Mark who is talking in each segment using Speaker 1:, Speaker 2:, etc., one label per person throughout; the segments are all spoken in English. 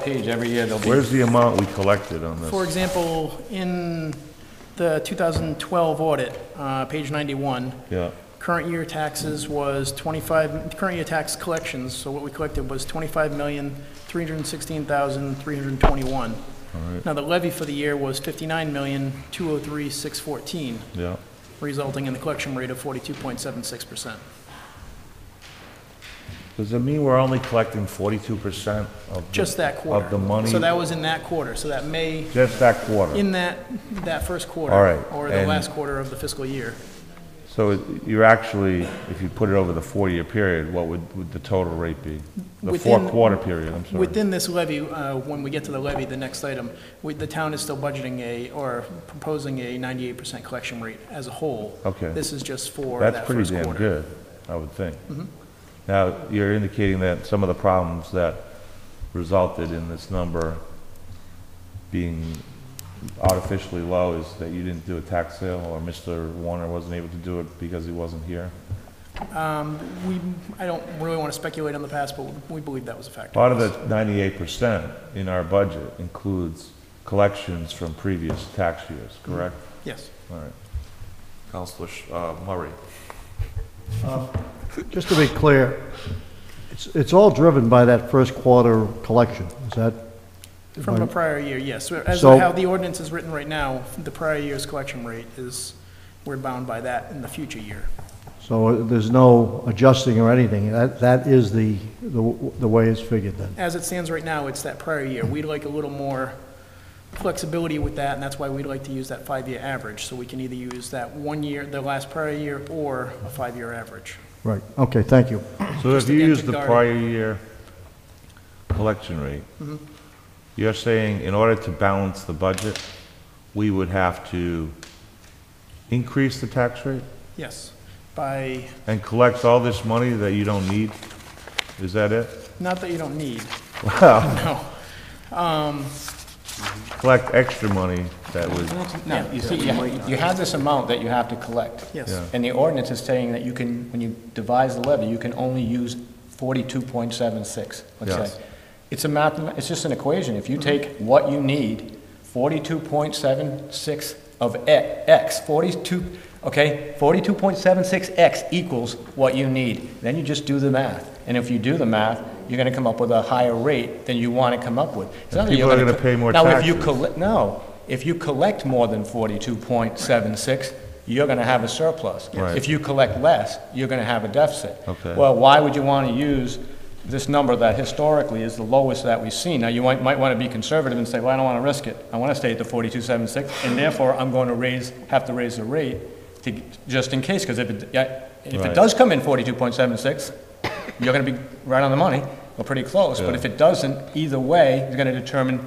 Speaker 1: page every year, there'll be,
Speaker 2: Where's the amount we collected on
Speaker 3: For
Speaker 2: this?
Speaker 3: example, in the 2012 audit, uh, page 91,
Speaker 2: Yeah,
Speaker 3: current year taxes was 25, current year tax collections, so what we collected was
Speaker 2: all
Speaker 3: 25316321
Speaker 2: right,
Speaker 3: Now, the levy for the year was 59203614
Speaker 2: yeah.
Speaker 3: resulting in the collection rate of 42.76%.
Speaker 2: Does it mean we're only collecting forty-two percent of? the-
Speaker 3: Just that quarter.
Speaker 2: Of the money,
Speaker 3: So that was in that quarter, so that May,
Speaker 2: just that quarter?
Speaker 3: in that, that first quarter.
Speaker 2: All right,
Speaker 3: Or the
Speaker 2: and-
Speaker 3: last quarter of the fiscal year.
Speaker 2: So it- you're actually, if you put it over the four-year period, what would, would the total rate be? The
Speaker 3: Within-
Speaker 2: four-quarter period, I'm sorry.
Speaker 3: Within this levy, uh, when we get to the levy, the next item, we- the town is still budgeting a, or proposing a 98% collection rate as a whole.
Speaker 2: Okay.
Speaker 3: This is just for that
Speaker 2: That's
Speaker 3: first
Speaker 2: pretty
Speaker 3: quarter.
Speaker 2: damn good,
Speaker 3: Mm-hmm.
Speaker 2: I would think. Now, you're indicating that some of the problems that resulted in this number being artificially low is that you didn't do a tax sale, or Mr. Warner wasn't able to do it because he wasn't here?
Speaker 3: Um, We, I don't really want to speculate on the past, but we believe that was a factor.
Speaker 2: Part of the ninety-eight percent in our budget includes collections from previous tax years, correct?
Speaker 3: Yes.
Speaker 2: All right. Counselor Sh- uh, Murray?
Speaker 4: Just to be clear, it's, it's all driven by that first quarter collection, is that?
Speaker 3: From a prior year, yes. So As
Speaker 4: So-
Speaker 3: of how the ordinance is written right now, the prior year's collection rate is, we're bound by that in the future year.
Speaker 4: So there's no adjusting or anything, that, that is the, the the way it's figured then?
Speaker 3: As it stands right now, it's that prior year. We'd like a little more flexibility with that, and that's why we'd like to use that five-year average. So we can either use that one year, the last prior year, or a five-year average.
Speaker 4: Right, okay, thank you.
Speaker 2: So if
Speaker 3: Just
Speaker 2: you
Speaker 3: again
Speaker 2: use
Speaker 3: to
Speaker 2: the
Speaker 3: guard-
Speaker 2: prior year collection rate,
Speaker 1: Mm-hmm.
Speaker 2: you're saying in order to balance the budget, we would have to increase the tax rate
Speaker 3: Yes, by,
Speaker 2: and collect all this money that you don't need? Is that it?
Speaker 3: not that you don't need. No.
Speaker 2: Collect extra money that would,
Speaker 1: no, you see, you ha- you have this amount that you have to collect.
Speaker 3: Yes.
Speaker 2: Yeah.
Speaker 1: And the ordinance is saying that you can, when you devise the levy, you can only use forty-two point seven six,
Speaker 2: Yeah.
Speaker 1: let's say. It's a math, it's just an equation. If you take what you need, forty-two point seven six of e- X, forty-two, okay, forty-two point seven six X equals what you need. Then you just do the math. And if you do the math, you're gonna come up with a higher rate than you wanna come up with. It's not that you're
Speaker 2: people are gonna
Speaker 1: co-
Speaker 2: pay more
Speaker 1: Now, if you
Speaker 2: taxes.
Speaker 1: colle- no, if you collect more than forty-two point seven six, you're gonna have a surplus.
Speaker 2: Right.
Speaker 1: If you collect less, you're gonna have a deficit.
Speaker 2: Okay.
Speaker 1: Well, why would you wanna use this number that historically is the lowest that we've seen? Now, you might, might wanna be conservative and say, well, I don't wanna risk it. I wanna stay at the forty-two seven six, and therefore, I'm going to raise, have to raise the rate to, just in case, because if it, yeah, if
Speaker 2: Right.
Speaker 1: it does come in forty-two point seven six, you're gonna be right on the money, or pretty close. But
Speaker 2: Yeah.
Speaker 1: if it doesn't, either way, it's gonna determine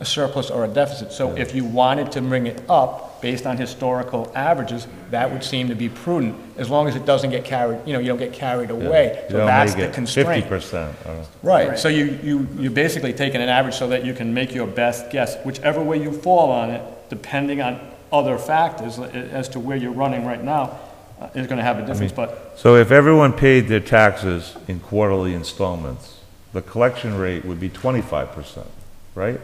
Speaker 1: a surplus or a deficit. So if you wanted to bring it up based on historical averages, that would seem to be prudent, as long as it doesn't get carried, you know, you don't get carried away.
Speaker 2: you
Speaker 1: So
Speaker 2: don't
Speaker 1: that's
Speaker 2: make
Speaker 1: the
Speaker 2: it
Speaker 1: constraint.
Speaker 2: Fifty percent, or
Speaker 1: Right, so you, you, you're basically taking an average so that you can make your best guess, whichever way you fall on it, depending on other factors a- as to where you're running right now, uh, is gonna have a difference, but
Speaker 2: So if everyone paid their taxes in quarterly installments, the collection rate would be twenty-five percent, right?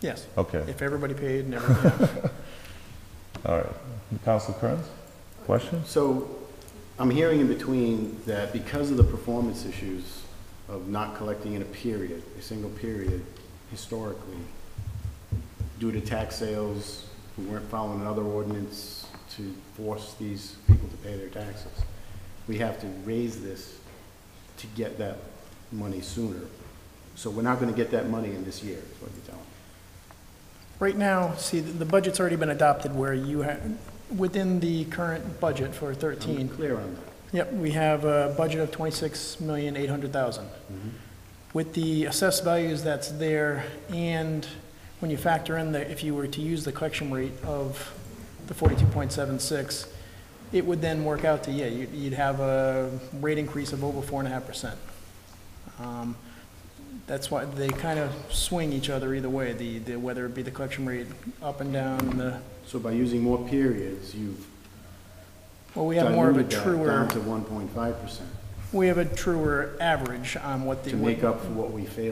Speaker 3: Yes.
Speaker 2: Okay.
Speaker 3: If everybody paid and everything.
Speaker 2: All right. Council Kearns, questions?
Speaker 5: So I'm hearing in between that because of the performance issues of not collecting in a period, a single period, historically, due to tax sales, we weren't following another ordinance to force these people to pay their taxes. We have to raise this to get that money sooner. So we're not gonna get that money in this year, is what you're telling me.
Speaker 3: Right now, see, the the budget's already been adopted where you have, within the current budget for 13,
Speaker 5: Clear on that?
Speaker 3: Yep, we have a budget of twenty-six million, eight hundred thousand. With the assessed values that's there, and when you factor in the, if you were to use the collection rate of the forty-two point seven six, it would then work out to, yeah, you'd, you'd have a rate increase of over four and a half percent. Um, That's why they kind of swing each other either way, the, the, whether it be the collection rate up and down, and the,
Speaker 5: So by using more periods, you've
Speaker 3: well, we have more of a
Speaker 5: diluted that
Speaker 3: truer.
Speaker 5: down to one point five percent.
Speaker 6: we have a truer average on what the.
Speaker 3: to
Speaker 6: what-
Speaker 3: make up for what we failed